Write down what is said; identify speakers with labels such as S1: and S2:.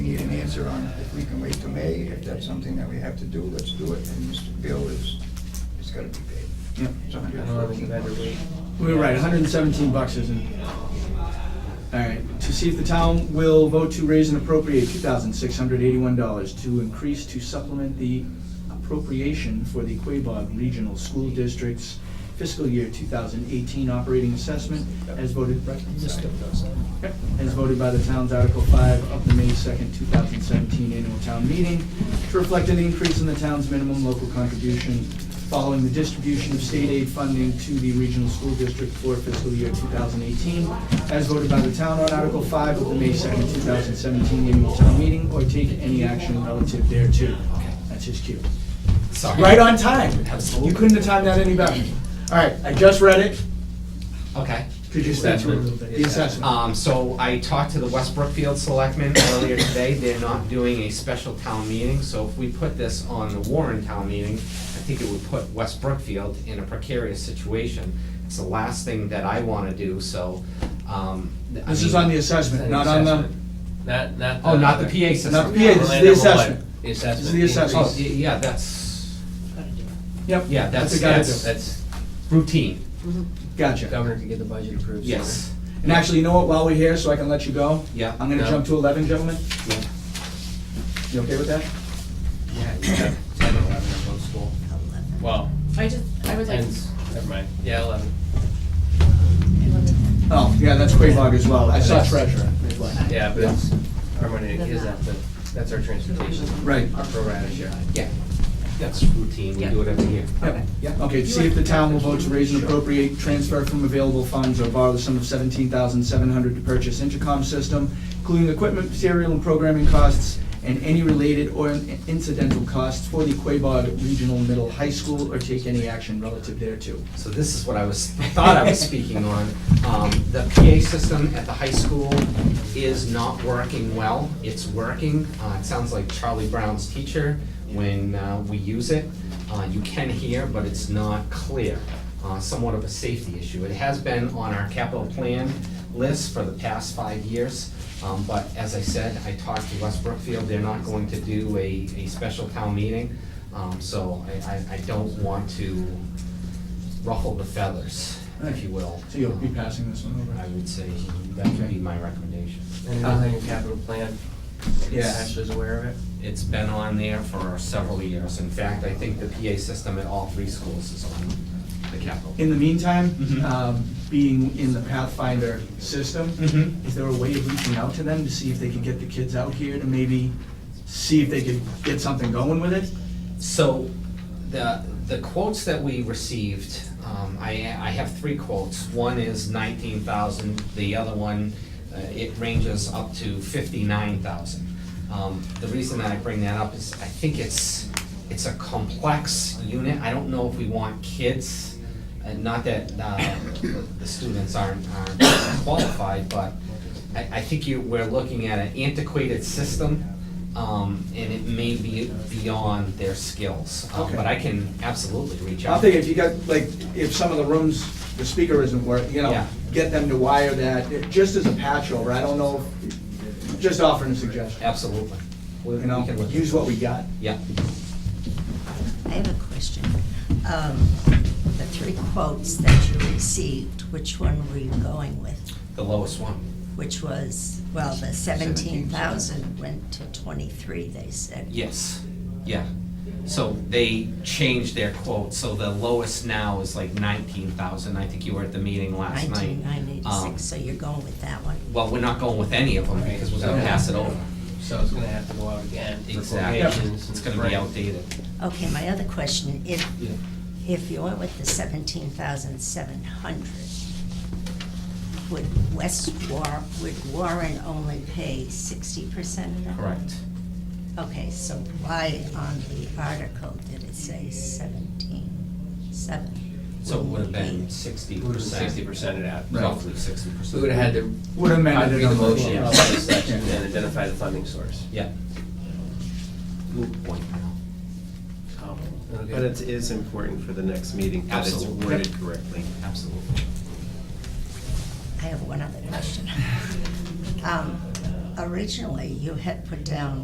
S1: answer on it. If we can wait till May, if that's something that we have to do, let's do it. And Mr. Bill is, it's gotta be paid.
S2: Yep.
S1: It's
S3: I
S1: hundred
S3: don't know, we
S1: fourteen
S3: better wait.
S2: We were right, hundred and seventeen bucks isn't. Alright, to see if the town will vote to raise and appropriate two thousand six hundred eighty-one dollars to increase to supplement the appropriation for the Quabog Regional School District's fiscal year two thousand eighteen operating assessment as voted, right?
S3: Mr. President.
S2: Yep, As voted by the town's Article 5 of the May 2nd, 2017 annual town meeting to reflect an increase in the town's minimum local contribution following the distribution of state aid funding to the regional school district for fiscal year 2018, as voted by the town on Article 5 of the May 2nd, 2017 annual town meeting, or take any action relative thereto. That's his cue.
S4: Sorry.
S2: Right on time.
S4: Absolutely.
S2: You couldn't have timed that any better. All right, I just read it.
S4: Okay.
S2: Could you step through it a little bit? The assessment.
S4: Um, so I talked to the West Brookfield selectmen earlier today, they're not doing a special town meeting, so if we put this on the Warren town meeting, I think it would put West Brookfield in a precarious situation. It's the last thing that I wanna do, so, um. I
S2: This is
S4: mean-
S2: on the assessment, not on the...
S5: Not, not.
S4: Oh, not the PA system.
S2: Not the PA, this is
S5: Orlando
S2: the
S5: Blight.
S2: assessment.
S5: The
S2: This is the assessment.
S5: assessment.
S4: Oh, y- yeah, that's
S2: Yep.
S4: Yeah, that's-
S2: what we gotta
S4: that's-
S2: do.
S5: That's,
S4: routine,
S2: Gotcha.
S3: Governor can get the budget approved.
S4: yes,
S2: And actually, you know what, while we're here, so I can let you go,
S4: yeah.
S2: I'm gonna
S5: No.
S2: jump to eleven, gentlemen.
S4: Yeah.
S2: You okay with that?
S3: Yeah,
S5: yeah, ten or eleven at both school. Well,
S6: I just, I was like,
S5: ten's, never mind, yeah, eleven,
S6: eleven,
S2: Oh, yeah, that's Quabog as well. I saw treasurer. That's why.
S5: yeah, but it's, our money is at the, that's our transportation,
S2: Right.
S5: our pro rata share.
S4: Yeah, that's routine, we
S6: Yeah.
S4: do it every year.
S2: Yep. Okay, to see if the town will vote to raise and appropriate, transfer from available funds, or borrow the sum of seventeen thousand seven hundred to purchase intercom system, including equipment, material, and programming costs, and any related or incidental costs for the Quabog Regional Middle High School, or take any action relative thereto.
S4: So this is what I was, thought I was speaking on. Um, the PA system at the high school is not working well. It's working, uh, it sounds like Charlie Brown's teacher when, uh, we use it. Uh, you can hear, but it's not clear, uh, somewhat of a safety issue. It has been on our capital plan list for the past five years. Um, but as I said, I talked to West Brookfield, they're not going to do a, a special town meeting. Um, so I, I, I don't want to ruffle the feathers, if you will.
S2: So you'll be passing this one over?
S4: I would say that would be my recommendation.
S5: And another thing, capital plan,
S2: Yeah.
S5: Ashley's aware of it.
S4: It's been on there for several years. In fact, I think the PA system at all three schools is on the capital.
S2: In the meantime,
S4: Mhm.
S2: um, being in the Pathfinder system,
S4: Mhm.
S2: is there a way of reaching out to them to see if they could get the kids out here to maybe see if they could get something going with it?
S4: So the, the quotes that we received, um, I, I have three quotes. One is nineteen thousand, the other one, uh, it ranges up to fifty-nine thousand. Um, the reason that I bring that up is I think it's, it's a complex unit. I don't know if we want kids, and not that, uh, the students aren't, aren't qualified, but I, I think you, we're looking at an antiquated system, um, and it may be beyond their skills. Um,
S2: Okay.
S4: But I can absolutely reach out.
S2: I think if you got, like, if some of the rooms, the speaker isn't working, you know,
S4: Yeah.
S2: get them to wire that, it- just as a patch over, I don't know, if- just offering a suggestion.
S4: Absolutely. We-
S2: You
S4: we
S2: know,
S4: can look at
S2: use
S4: that.
S2: what we got.
S4: Yeah,
S7: I have a question. Um, The three quotes that you received, which one were you going with?
S4: the lowest one.
S7: Which was, well, the seventeen thousand went to twenty-three, they said.
S4: Yes, yeah. So they changed their quote, so the lowest now is like nineteen thousand. I think you were at the meeting last night.
S7: Nineteen nine
S4: Um,
S7: eighty-six, so you're going with that one.
S4: Well, we're not going with any of them because we're gonna pass it over.
S5: So it's gonna have to go out again for
S4: Exactly.
S5: quotations.
S4: It's gonna be outdated.
S7: Okay, my other question, if,
S4: Yeah.
S7: if you went with the seventeen thousand seven hundred, would West War, would Warren only pay sixty percent of that?
S4: Correct.
S7: Okay, so why on the article did it say seventeen, seven?
S4: So it would have been sixty percent.
S5: Sixty percent of that.
S4: Roughly sixty percent.
S5: We would've had to.
S2: Would amend it.
S5: Read the
S2: on the
S5: motion,
S2: floor.
S5: follow the sections, and identify the funding source.
S4: Yeah. Moot point now.
S5: Oh.
S8: But it is important for the next meeting that it's
S4: Absolutely.
S8: worded correctly.
S4: Absolutely.
S7: I have one other question. Um, Originally, you had put down